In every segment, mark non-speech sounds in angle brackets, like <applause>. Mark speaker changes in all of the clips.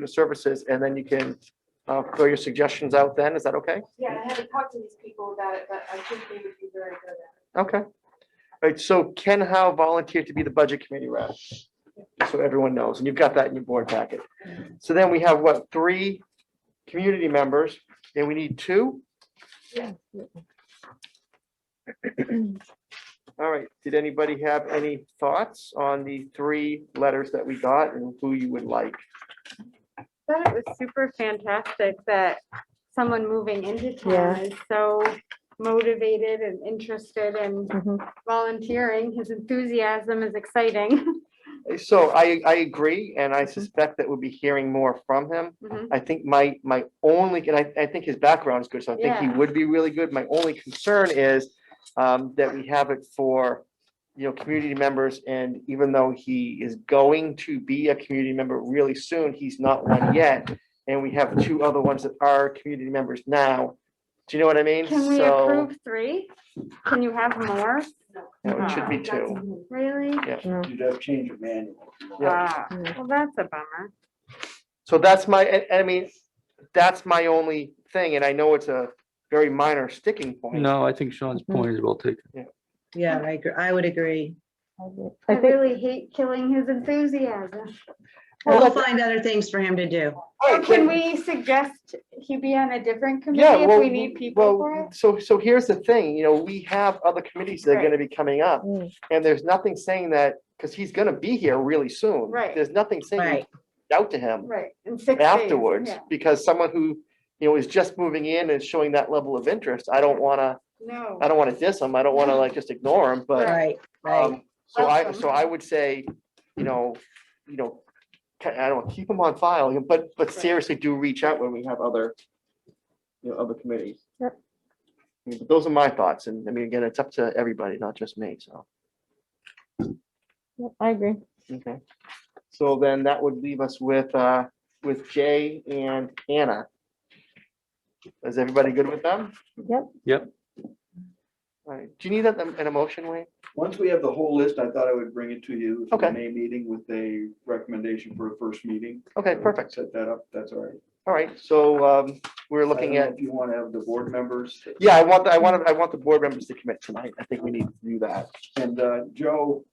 Speaker 1: your services, and then you can uh, throw your suggestions out then. Is that okay?
Speaker 2: Yeah, I haven't talked to these people about it, but I think they would be very good at it.
Speaker 1: Okay. All right, so Ken Howe volunteered to be the Budget Committee rep. So everyone knows, and you've got that in your board packet. So then we have, what, three community members, and we need two?
Speaker 2: Yeah.
Speaker 1: All right, did anybody have any thoughts on the three letters that we got and who you would like?
Speaker 3: thought it was super fantastic that someone moving into town is so motivated and interested and volunteering. His enthusiasm is exciting.
Speaker 1: So I, I agree, and
Speaker 3: Mm-hmm.
Speaker 1: I suspect that we'll be hearing more from him.
Speaker 3: Mhm.
Speaker 1: I think my, my only, and I, I think his background is good, so I think he
Speaker 3: Yeah.
Speaker 1: would be really good. My only concern is um, that we have it for, you know, community members, and even though he is going to be a community member really soon, he's not one yet. And we have two other ones that are community members now. Do you know what I mean?
Speaker 3: <laughs> Can we
Speaker 1: So,
Speaker 3: approve three? Can you have more?
Speaker 1: no, It should be
Speaker 2: That's
Speaker 1: two.
Speaker 2: me.
Speaker 3: Really?
Speaker 4: You'd have to change it manual.
Speaker 3: Ah, Well, that's a bummer.
Speaker 1: So that's my, I- I mean, that's my only thing, and I know it's a very minor sticking point.
Speaker 5: No, I think Sean's point is well taken.
Speaker 6: Yeah, I agree. I would agree.
Speaker 3: I really hate killing his enthusiasm.
Speaker 1: Well,
Speaker 6: We'll
Speaker 1: that's-
Speaker 6: find other things for him to do.
Speaker 1: All
Speaker 3: Or
Speaker 1: right,
Speaker 3: can
Speaker 1: then-
Speaker 3: we suggest he be on a different committee
Speaker 1: Yeah,
Speaker 3: if
Speaker 1: well,
Speaker 3: we need people for
Speaker 1: well,
Speaker 3: it?
Speaker 1: so, so here's the thing, you know, we have other committees that are gonna be coming up,
Speaker 6: Mm.
Speaker 1: and there's nothing saying that, because he's gonna be here really soon.
Speaker 3: Right.
Speaker 1: There's nothing saying
Speaker 6: Right.
Speaker 1: out to him
Speaker 3: Right, in six days.
Speaker 1: afterwards,
Speaker 3: yeah.
Speaker 1: because someone who, you know, is just moving in and showing that level of interest, I don't wanna,
Speaker 3: No.
Speaker 1: I don't wanna diss him, I don't wanna like just ignore him, but
Speaker 6: Right, right.
Speaker 1: Um, so I,
Speaker 3: Awesome.
Speaker 1: so I would say, you know, you know, ki- I don't, know, keep them on file, but, but seriously do reach out when we have other, you know, other committees.
Speaker 3: Yep.
Speaker 1: I mean, but Those are my thoughts, and I mean, again, it's up to everybody, not just me, so.
Speaker 7: I agree.
Speaker 1: Okay. So then that would leave us with, uh, with Jay and Anna. Is everybody good with them?
Speaker 7: Yep.
Speaker 5: Yep.
Speaker 1: All right, do you need that, an emotion, Wayne?
Speaker 4: Once we have the whole list, I thought I would bring it to you. for the
Speaker 1: Okay.
Speaker 4: May meeting with a recommendation for a first meeting.
Speaker 1: Okay, perfect,
Speaker 4: Set that up, that's all right.
Speaker 1: all right, so, um, we're
Speaker 4: I don't
Speaker 1: looking
Speaker 4: know
Speaker 1: at
Speaker 4: If you want to have the board members
Speaker 1: Yeah, I want, the- I want, I want the board members to commit tonight. I think we need to do that.
Speaker 4: and uh, Joe,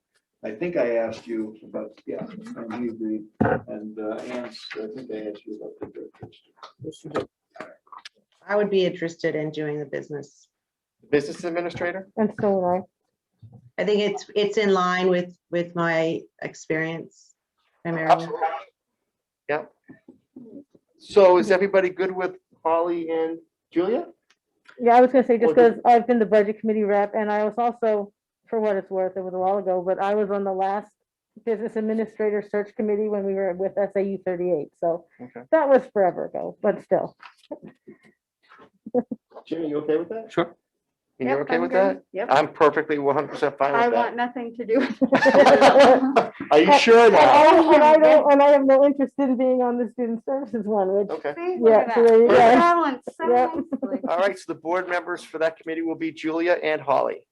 Speaker 4: I think I asked you about, yeah, and you agreed. And uh, Ann, I think I asked you about the directors.
Speaker 6: I would be interested in doing the business.
Speaker 1: Business administrator?
Speaker 7: And so would I.
Speaker 6: I think it's, it's in line with, with my experience primarily.
Speaker 1: Absolutely. Yep. So is everybody good with Holly and Julia?
Speaker 7: Yeah, I was gonna say, just
Speaker 1: Well, the-
Speaker 7: because I've been the budget committee rep and I was also, for what it's worth, it was a while ago, but I was on the last business administrator search committee when we were with SAU thirty-eight, so
Speaker 1: Okay.
Speaker 7: that was forever ago, but still.
Speaker 1: Jimmy, you okay with that?
Speaker 5: Sure.
Speaker 1: And You're
Speaker 3: Yep,
Speaker 1: okay
Speaker 3: I'm
Speaker 1: with
Speaker 3: good.
Speaker 1: that?
Speaker 3: Yep.
Speaker 1: I'm perfectly one hundred percent
Speaker 3: I
Speaker 1: fine with
Speaker 3: want nothing to do with
Speaker 1: that. <laughs> Are you sure
Speaker 7: And
Speaker 1: now?
Speaker 7: <laughs> I and I don't, and I have no interest in being on the student services one, which,
Speaker 1: Okay.
Speaker 7: yeah, so there you go.
Speaker 3: Balance so
Speaker 7: Yeah.
Speaker 3: nicely.
Speaker 1: All right, so the board members for that committee will be Julia and Holly.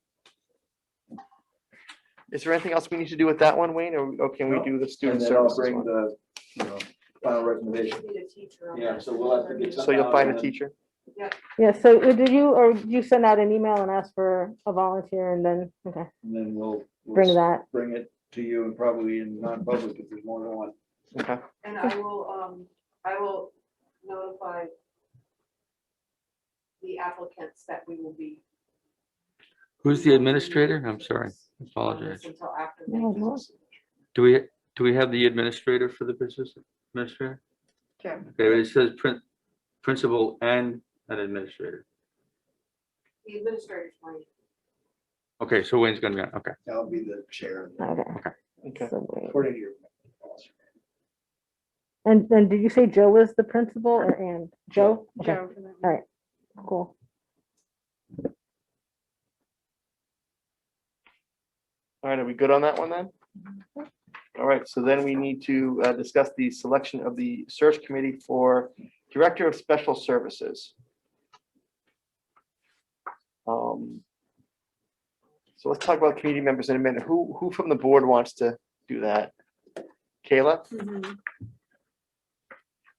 Speaker 1: Is there anything else we need to do with that one, Wayne, or or can we
Speaker 4: No.
Speaker 1: do the
Speaker 4: And
Speaker 1: student
Speaker 4: then I'll
Speaker 1: services
Speaker 4: bring
Speaker 1: one?
Speaker 4: the, you know, final
Speaker 2: We
Speaker 4: recommendation.
Speaker 2: should need a teacher on
Speaker 4: Yeah,
Speaker 2: that.
Speaker 4: so we'll have to get
Speaker 1: So you'll find a
Speaker 4: Uh,
Speaker 1: teacher?
Speaker 7: Yeah, so uh, did you, or you send out an email and ask for a volunteer and then, okay,
Speaker 4: And then we'll. we'll
Speaker 7: bring that.
Speaker 4: Bring it to you and probably in non-public if there's more than one.
Speaker 1: Okay.
Speaker 2: And I will, um, I will notify the applicants that we will be.
Speaker 5: Who's the administrator? I'm sorry,
Speaker 2: on this
Speaker 5: apologize.
Speaker 2: Until after.
Speaker 7: Yeah,
Speaker 2: May.
Speaker 7: no.
Speaker 5: Do we, do we have the administrator for the business administrator?
Speaker 3: Sure.
Speaker 5: Okay, it says prin- principal and an administrator.
Speaker 2: The administrator's fine.
Speaker 5: Okay, so Wayne's gonna be on, okay.
Speaker 4: I'll be the chair
Speaker 7: Okay.
Speaker 1: Okay.
Speaker 7: so wait.
Speaker 4: according to your.
Speaker 7: And then did you say Joe was the principal or and Joe? Okay,
Speaker 3: Joe.
Speaker 7: cool.
Speaker 1: All right, are we good on that one then? All right, so then we need to uh, discuss the selection of the search committee for Director of Special Services. Um, So let's talk about community members in a minute. Who, who from the board wants to do that? Kayla?
Speaker 3: Mhm.